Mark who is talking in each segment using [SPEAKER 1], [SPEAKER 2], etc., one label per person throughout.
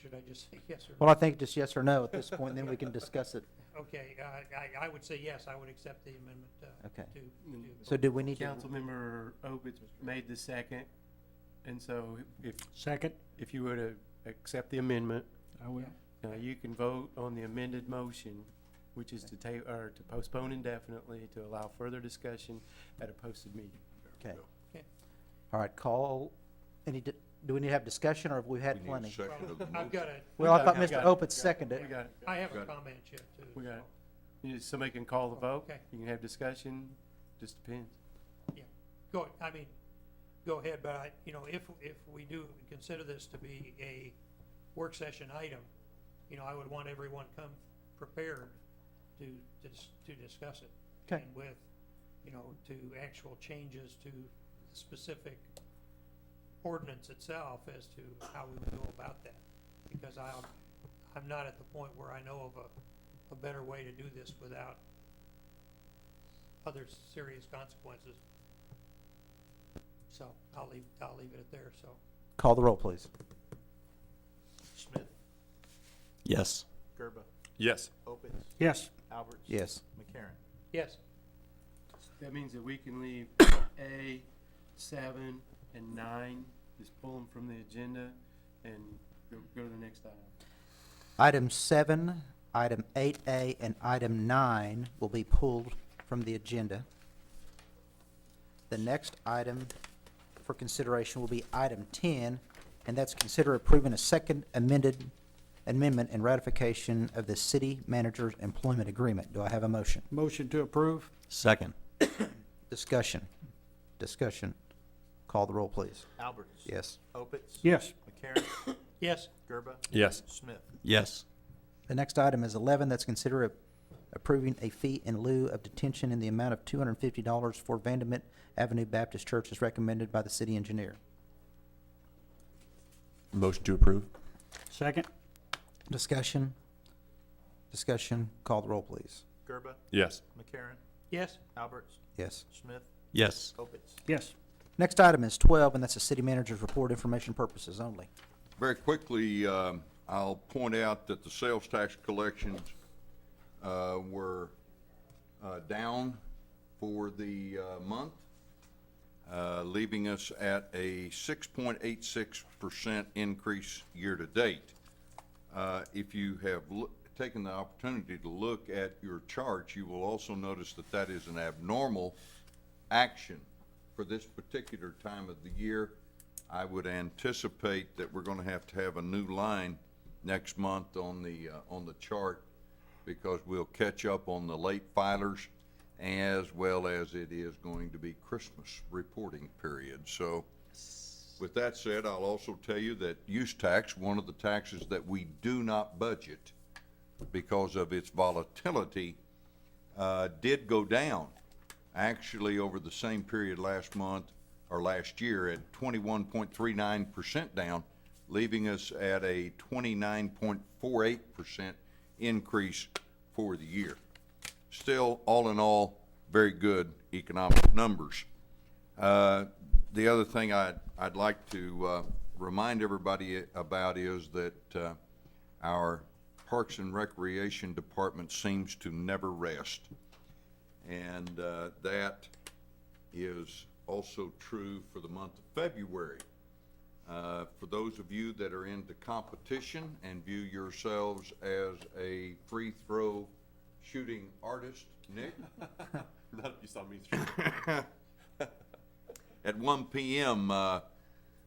[SPEAKER 1] should I just say yes or no?
[SPEAKER 2] Well, I think just yes or no at this point, and then we can discuss it.
[SPEAKER 1] Okay, uh, I, I would say yes, I would accept the amendment uh,
[SPEAKER 2] Okay.
[SPEAKER 1] to, to.
[SPEAKER 2] So do we need to?
[SPEAKER 3] Councilmember Opitz made the second, and so if,
[SPEAKER 4] Second,
[SPEAKER 3] if you were to accept the amendment,
[SPEAKER 4] I will.
[SPEAKER 3] now you can vote on the amended motion, which is to ta, or to postpone indefinitely to allow further discussion at a posted meeting.
[SPEAKER 2] Okay.
[SPEAKER 1] Okay.
[SPEAKER 2] All right, call, any, di- do we need to have discussion, or have we had
[SPEAKER 5] We need a
[SPEAKER 2] plenty?
[SPEAKER 5] second of the
[SPEAKER 1] I've
[SPEAKER 5] motion.
[SPEAKER 1] got a,
[SPEAKER 2] Well, I
[SPEAKER 3] We
[SPEAKER 2] thought
[SPEAKER 3] got it, we
[SPEAKER 2] Mr.
[SPEAKER 3] got it,
[SPEAKER 2] Opitz seconded
[SPEAKER 3] We
[SPEAKER 2] it.
[SPEAKER 3] got it.
[SPEAKER 1] I have a
[SPEAKER 5] Got it.
[SPEAKER 1] comment yet too.
[SPEAKER 3] We got
[SPEAKER 1] so-
[SPEAKER 3] it. You- Somebody can call the vote,
[SPEAKER 1] Okay.
[SPEAKER 3] you can have discussion, just depends.
[SPEAKER 1] Go, I mean, go ahead, but I, you know, if, if we do consider this to be a work session item, you know, I would want everyone come prepared to, to, dis- to discuss it.
[SPEAKER 2] Okay.
[SPEAKER 1] And with, you know, to actual changes to specific ordinance itself as to how we would go about that. Because I'm, I'm not at the point where I know of a, a better way to do this without other serious consequences. So I'll leave, I'll leave it at there, so.
[SPEAKER 2] Call the roll, please.
[SPEAKER 3] Schmidt,
[SPEAKER 6] Yes.
[SPEAKER 7] Gerba,
[SPEAKER 5] Yes.
[SPEAKER 7] Opitz,
[SPEAKER 4] Yes,
[SPEAKER 7] Alberts.
[SPEAKER 2] Yes.
[SPEAKER 7] McCarron.
[SPEAKER 1] Yes,
[SPEAKER 3] That means that we can leave A, seven, and nine, just pull them from the agenda and go, go to the next item.
[SPEAKER 2] Item seven, item eight A, and item nine will be pulled from the agenda. The next item for consideration will be item ten, and that's consider approving a second amended amendment and ratification of the city manager's employment agreement. Do I have a motion?
[SPEAKER 4] motion to approve?
[SPEAKER 6] Second.
[SPEAKER 2] Discussion. Discussion. Call the roll, please.
[SPEAKER 7] Alberts.
[SPEAKER 2] Yes.
[SPEAKER 7] Opitz.
[SPEAKER 4] Yes,
[SPEAKER 7] McCarron.
[SPEAKER 1] yes,
[SPEAKER 7] Gerba,
[SPEAKER 5] Yes.
[SPEAKER 7] Smith.
[SPEAKER 6] Yes.
[SPEAKER 2] The next item is eleven, that's consider a- approving a fee in lieu of detention in the amount of two hundred and fifty dollars for Vandermint Avenue Baptist Church as recommended by the city engineer.
[SPEAKER 5] Motion to approve?
[SPEAKER 4] second?
[SPEAKER 2] Discussion? Discussion, call the roll, please.
[SPEAKER 7] Gerba,
[SPEAKER 5] Yes.
[SPEAKER 7] McCarron.
[SPEAKER 1] yes,
[SPEAKER 7] Alberts.
[SPEAKER 2] Yes.
[SPEAKER 7] Smith.
[SPEAKER 6] Yes.
[SPEAKER 7] Opitz.
[SPEAKER 4] Yes.
[SPEAKER 2] Next item is twelve, and that's the city manager's report information purposes only.
[SPEAKER 5] Very quickly, um, I'll point out that the sales tax collections uh, were uh, down for the uh, month, uh, leaving us at a 6.86% increase year-to-date. Uh, If you have loo- taken the opportunity to look at your charts, you will also notice that that is an abnormal action for this particular time of the year. I would anticipate that we're going to have to have a new line next month on the, uh, on the chart because we'll catch up on the late filers as well as it is going to be Christmas reporting period. So with that said, I'll also tell you that use tax, one of the taxes that we do not budget because of its volatility, uh, did go down, actually over the same period last month or last year at twenty-one point three nine percent down, leaving us at a twenty-nine point four eight percent increase for the year. Still, all in all, very good economic numbers. Uh, The other thing I'd, I'd like to uh, remind everybody about is that uh, our Parks and Recreation Department seems to never rest. And uh, that is also true for the month of February. Uh, For those of you that are into competition and view yourselves as a free throw shooting artist, Nick? at 1 p.m. Uh,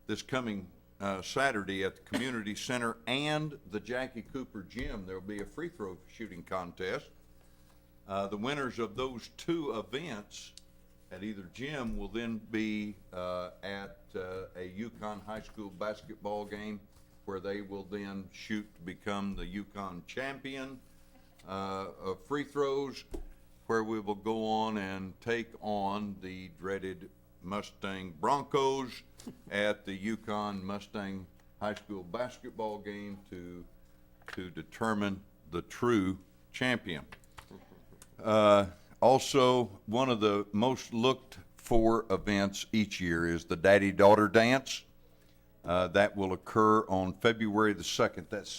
[SPEAKER 5] this coming uh, Saturday at the Community Center and the Jackie Cooper Gym. There will be a free throw shooting contest. Uh, the winners of those two events at either gym will then be uh, at uh, a Yukon High School basketball game where they will then shoot to become the Yukon champion uh, of free throws, where we will go on and take on the dreaded Mustang Broncos at the Yukon Mustang High School basketball game to, to determine the true champion. Uh, Also, one of the most looked-for events each year is the daddy-daughter dance. Uh, That will occur on February the 2nd. That's